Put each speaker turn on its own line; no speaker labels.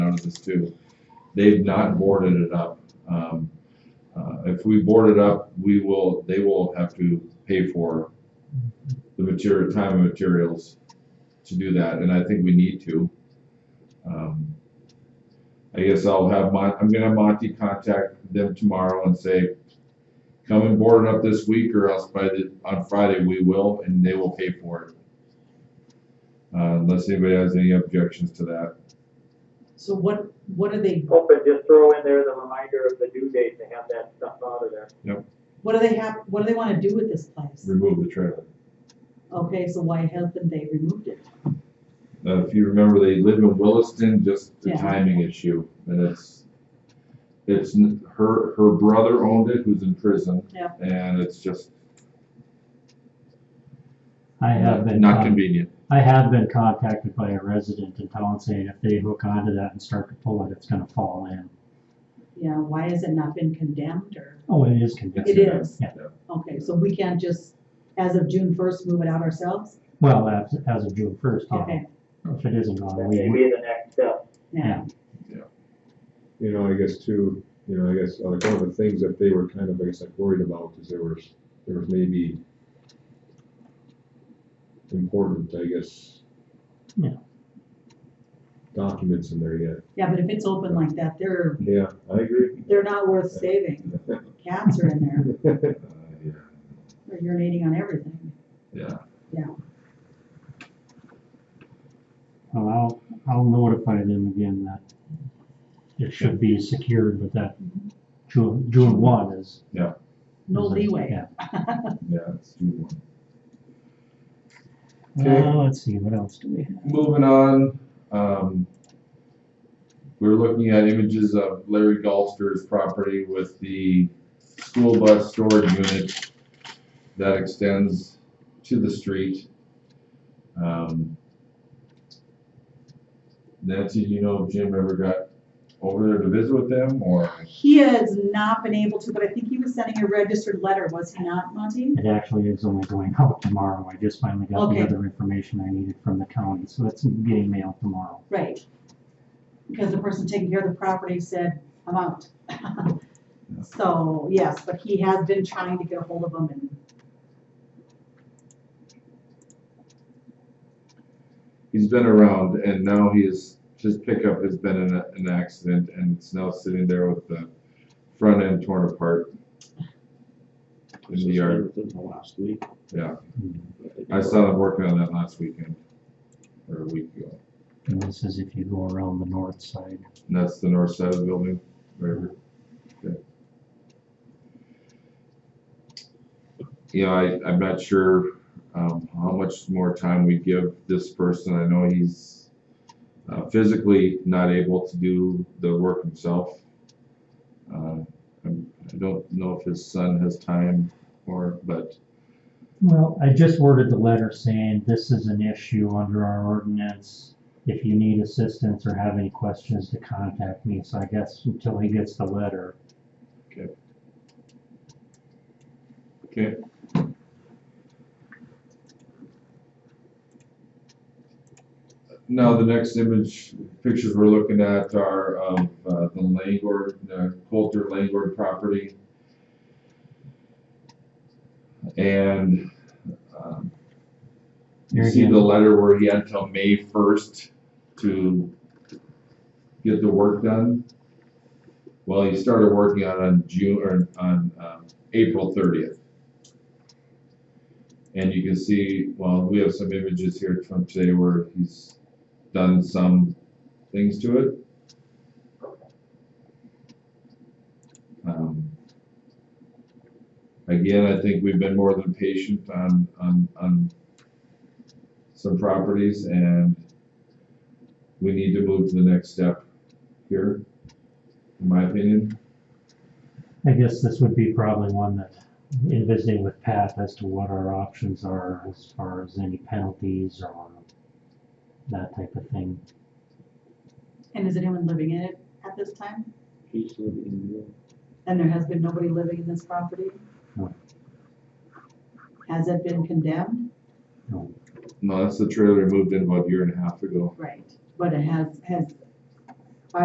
runs this too. They've not boarded it up. Um, uh, if we board it up, we will, they will have to pay for the material, time and materials to do that, and I think we need to. Um, I guess I'll have Mon, I'm gonna have Monty contact them tomorrow and say, come and board it up this week or else by the, on Friday we will, and they will pay for it. Uh, unless anybody has any objections to that.
So what, what are they,
Hope and just throw in there the reminder of the due date to have that stuff out of there.
what do they have, what do they wanna do with this place?
remove the trailer.
Okay, so why haven't they removed it?
Uh, if you remember, they live in Williston, just the
Yeah.
timing issue, and it's, it's, n- her, her brother owned it, who's in prison.
Yeah.
And it's just
I have been,
not
con-
convenient.
I have been contacted by a resident in town saying if they hook onto that and start to pull it, it's gonna fall in.
Yeah, why has it not been condemned or,
Oh, it is condemned.
It is.
Yeah.
okay, so we can't just, as of June first, move it out ourselves?
Well, as, as of June first, yeah.
Okay,
If it isn't on,
That
we,
may be the next step.
yeah,
you know, I guess too, you know, I guess uh, like one of the things that they were kind of, I guess, like worried about is there was, there was maybe important, I guess.
Yeah.
Documents in there yet.
yeah, but if it's open like that, they're,
Yeah, I agree.
they're not worth saving. Cats are in there,
Uh, yeah.
they're urinating on everything.
Yeah,
Well, I'll, I'll notify them again that it should be secured, but that June, June one is.
No
is-
leeway.
yeah.
yeah, it's too long. Okay.
Uh, let's see, what else do we have?
Moving on, um, we're looking at images of Larry Golster's property with the school bus storage unit that extends to the street. Um, Nancy, do you know if Jim ever got over there to visit with them or?
He has not been able to, but I think he was sending a registered letter, was he not, Monty?
It actually is only going out tomorrow. I just finally got
Okay.
the other information I needed from the county, so it's getting mailed tomorrow.
Right. Because the person taking care of the property said, I'm out. So, yes, but he has been trying to get a hold of them and
he's been around and now he is, his pickup has been in a, an accident and it's now sitting there with the front end torn apart. In the yard,
Within the last week.
yeah.
And
I saw them working on that last weekend or a week ago.
this is if you go around the north side.
And that's the north side of the building, wherever. Okay. Yeah, I, I'm not sure, um, how much more time we give this person. I know he's uh, physically not able to do the work himself. Uh, I'm- I don't know if his son has time or, but,
Well, I just worded the letter saying this is an issue under our ordinance. If you need assistance or have any questions to contact me, so I guess until he gets the letter.
okay. Now, the next image, pictures we're looking at are of uh, the Langford, uh, Coulter Langford property. And um, you
There
see
again,
the letter where he had till May first to get the work done? Well, he started working on it on June, or on, um, April thirtieth. And you can see, well, we have some images here from today where he's done some things to it. Um, Again, I think we've been more than patient on, on, on some properties and we need to move to the next step here, in my opinion.
I guess this would be probably one that, in visiting with Pat as to what our options are as far as any penalties or that type of thing.
And is anyone living in it at this time?
He's living in
And there has been nobody living in this property?
No.
Has it been condemned?
No, that's the trailer we moved in about a year and a half ago.
Right. But it has, has